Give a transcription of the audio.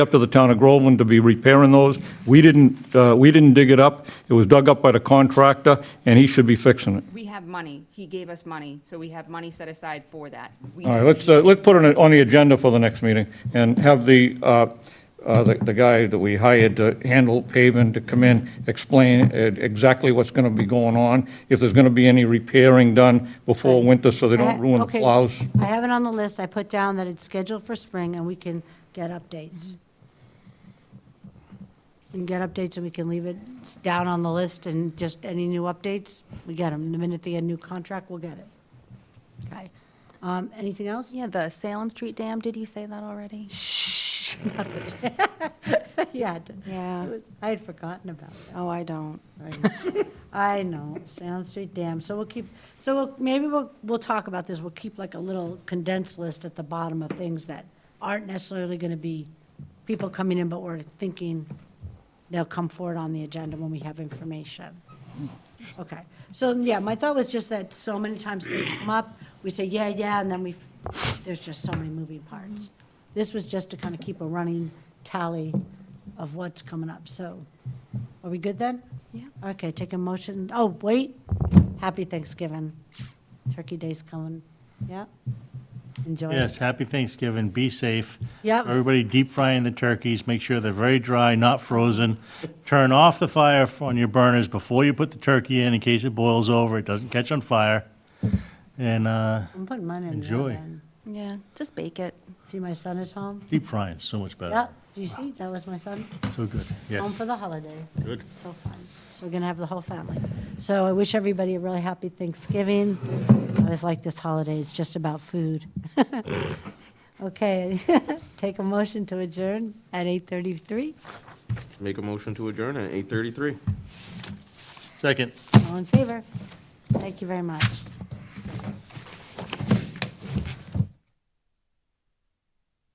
up to the town of Groveland to be repairing those. We didn't, uh, we didn't dig it up. It was dug up by the contractor, and he should be fixing it. We have money. He gave us money, so we have money set aside for that. We All right, just let's, need- uh, let's put it on the agenda for the next meeting and have the, uh, uh, the the guy that we hired to handle paving to come in, explain uh, exactly what's going to be going on, if there's going to be any repairing done before winter so they I don't ha- ruin the Uh, okay, plows. I have it on the list. I put down that it's scheduled for spring, and we can get updates. We can get updates, and we can leave it s- down on the list, and just any new updates, we get them. The minute they get a new contract, we'll get it. Okay. Um, Anything else? Yeah, the Salem Street Dam, did you say that already? Yeah. I did. Yeah. It was- I had forgotten about that. Oh, I don't. I know, Sound Street Dam, so we'll keep, so we'll- maybe we'll, we'll talk about this, we'll keep like a little condensed list at the bottom of things that aren't necessarily gonna be people coming in, but we're thinking they'll come forward on the agenda when we have information. Okay, so, yeah, my thought was just that so many times things come up, we say, yeah, yeah, and then we, there's just so many moving parts. This was just to kind of keep a running tally of what's coming up, so, are we good then? Yeah. Okay, take a motion, oh, wait, happy Thanksgiving, Turkey Day's coming, yeah? Enjoy. Yes, happy Thanksgiving, be safe. Yep. Everybody deep frying the turkeys, make sure they're very dry, not frozen. Turn off the fire on your burners before you put the turkey in, in case it boils over, it doesn't catch on fire. And uh, I'm putting mine in the Enjoy. oven. Yeah, just bake it. See my son is home? deep frying is so much better, Yeah, do you see, that was my son, so good, home yes. for the holiday. Good. So fun. We're going to have the whole family. So I wish everybody a really happy Thanksgiving. I always like this holiday, it's just about food. Okay, take a motion to adjourn at 8:33. Make a motion to adjourn at eight thirty-three. Second. All in favor? Thank you very much.